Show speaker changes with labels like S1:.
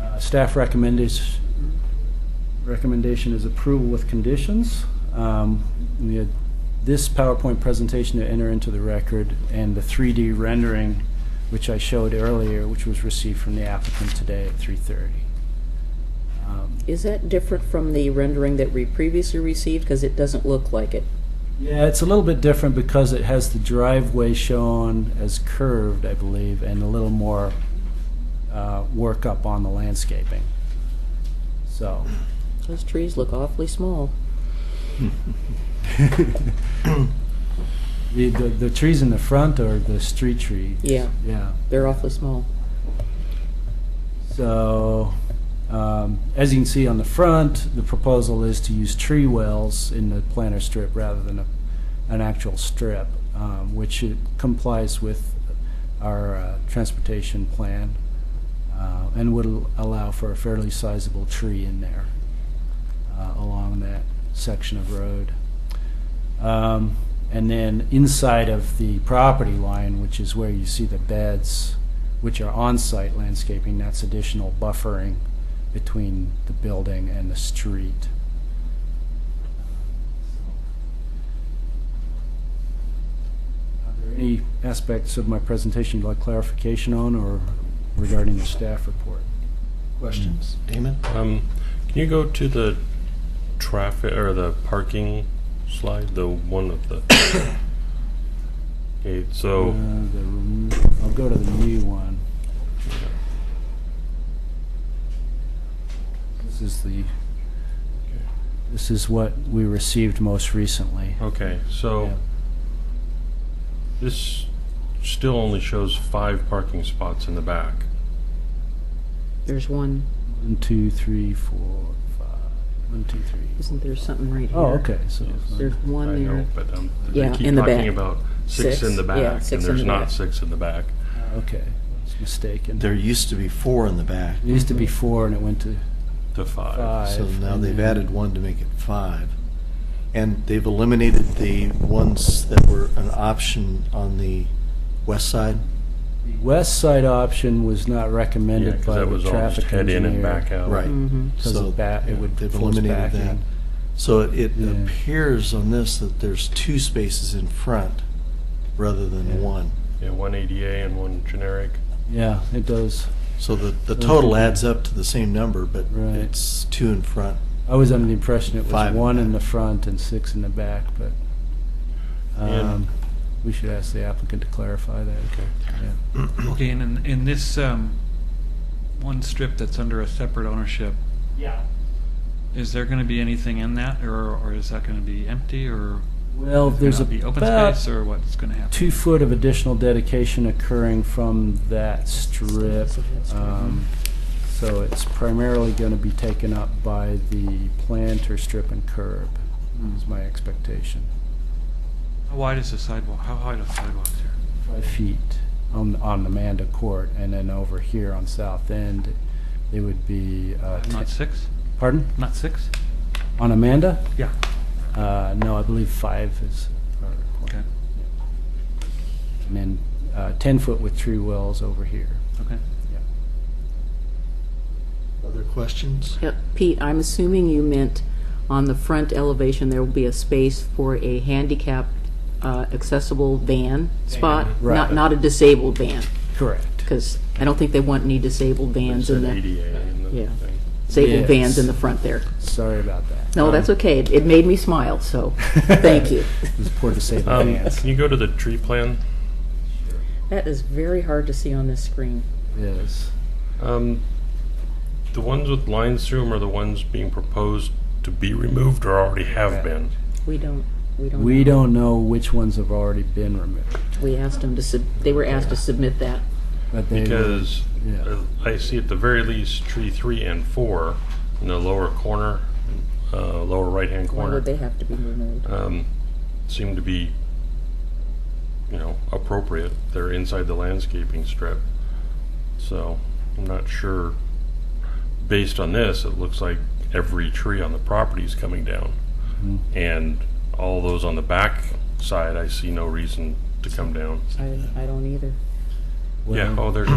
S1: Uh, Staff recommendation, recommendation is approval with conditions. Um, We had this PowerPoint presentation to enter into the record, and the 3D rendering, which I showed earlier, which was received from the applicant today at 3:30. Um,
S2: Is that different from the rendering that we previously received? Because it doesn't look like it.
S1: Yeah, it's a little bit different because it has the driveway shown as curved, I believe, and a little more uh, work up on the landscaping. So,
S2: Those trees look awfully small.
S1: the, the the trees in the front are the street trees.
S2: Yeah.
S1: Yeah.
S2: They're awfully small.
S1: So, um, as you can see on the front, the proposal is to use tree wells in the planter strip rather than a, an actual strip, um, which it complies with our uh, transportation plan uh, and would al- allow for a fairly sizable tree in there uh, along that section of road. Um, and then inside of the property line, which is where you see the beds, which are on-site landscaping, that's additional buffering between the building and the street. Are there any aspects of my presentation you'd like clarification on or regarding the staff report?
S3: Questions? Damon?
S4: Um, can you go to the traffic or the parking slide, the one of the? okay,
S1: Uh,
S4: so
S1: the rem- I'll go to the new one. This is the, this is what we received most recently.
S4: okay, so
S1: Yeah.
S4: this still only shows five parking spots in the back.
S2: There's one.
S1: One, two, three, four, five. One, two, three.
S2: Isn't there something right here?
S1: Oh, okay, so.
S2: There's
S4: I
S2: one
S4: know,
S2: there.
S4: but um,
S2: Yeah,
S4: they keep
S2: in the back.
S4: talking about six
S2: Six,
S4: in the
S2: yeah,
S4: back,
S2: six
S4: and
S2: in
S4: there's
S2: the back.
S4: not six in the back.
S1: Okay, I was mistaken. There
S3: There used to be four in the back,
S1: used to be four and it went to
S4: To five.
S1: five.
S3: so now
S1: and
S3: they've
S1: then-
S3: added one to make it five. And they've eliminated the ones that were an option on the west side.
S1: The West side option was not
S4: Yeah,
S1: recommended
S4: because
S1: by the
S4: that was all just
S1: traffic
S4: head in and
S1: engineer.
S4: back out.
S2: Mm-hmm.
S1: Because
S3: So,
S1: of that, it
S3: yeah,
S1: would
S3: They've
S1: force
S3: eliminated that.
S1: backing.
S3: So it- it
S1: Yeah.
S3: appears on this that there's two spaces in front rather
S1: Yeah.
S3: than one.
S4: Yeah, one ADA and one generic.
S1: Yeah, it does.
S3: So the, the
S1: Okay.
S3: total adds up to the same number, but
S1: Right.
S3: it's two in front.
S1: I was under the impression it was
S3: Five in
S1: one
S3: the
S1: in
S3: back.
S1: the front and six in the back, but um, we should ask the applicant to clarify that.
S4: Okay.
S1: Yeah.
S5: Okay, and in, in this um, one strip that's under a separate ownership,
S1: Yeah.
S5: is there going to be anything in that, or, or is that going to be empty, or
S1: Well,
S5: is it
S1: there's
S5: gonna be open
S1: about
S5: space, or what's going to happen?
S1: two foot of additional dedication occurring from that strip. Um, So it's primarily going to be taken up by the planter strip and curb,
S5: Hmm.
S1: is my expectation.
S5: How wide is the sidewalk? How wide are the sidewalks here?
S1: five feet on, on Amanda Court, and then over here on South End, it would be, uh,
S5: Not
S1: ten-
S5: six?
S1: pardon?
S5: Not six?
S1: On Amanda?
S5: Yeah.
S1: Uh, no, I believe five is, our
S5: Okay.
S1: requirement. and then, uh, ten foot with tree wells over here.
S5: Okay.
S3: Other questions?
S2: Yep. Pete, I'm assuming you meant on the front elevation, there will be a space for a handicap uh, accessible van spot?
S1: Right.
S2: Not, not a disabled van,
S1: Correct.
S2: because I don't think they want any disabled
S4: It
S2: vans in
S4: said
S2: the,
S4: ADA in the
S2: Yeah.
S4: thing.
S2: disabled
S1: Yes.
S2: vans in the front there.
S1: Sorry about that. Um,
S2: No, that's okay. It it made me smile, so, thank you.
S1: It was poor disabled
S4: Um,
S1: hands.
S4: Can you go to the tree plan?
S2: That is very hard to see on this screen.
S1: Yes.
S4: Um, the ones with lines through them are the ones being proposed to be removed or already have been.
S2: We don't, we don't.
S1: We
S2: know.
S1: don't know which ones have already been removed,
S2: We asked them to, sub. they were asked to submit that.
S1: but they.
S4: Because
S1: Yeah.
S4: uh, I see at the very least tree three and four in the lower corner, uh, lower right-hand
S2: Why would they
S4: corner,
S2: have to be removed?
S4: um, seem to be, you know, appropriate. They're inside the landscaping strip. So I'm not sure, based on this, it looks like every tree on the property is coming down.
S1: Mhm.
S4: And all those on the back side, I see no reason to come down.
S2: I, I don't either.
S4: Yeah,
S1: Well-
S4: oh, there's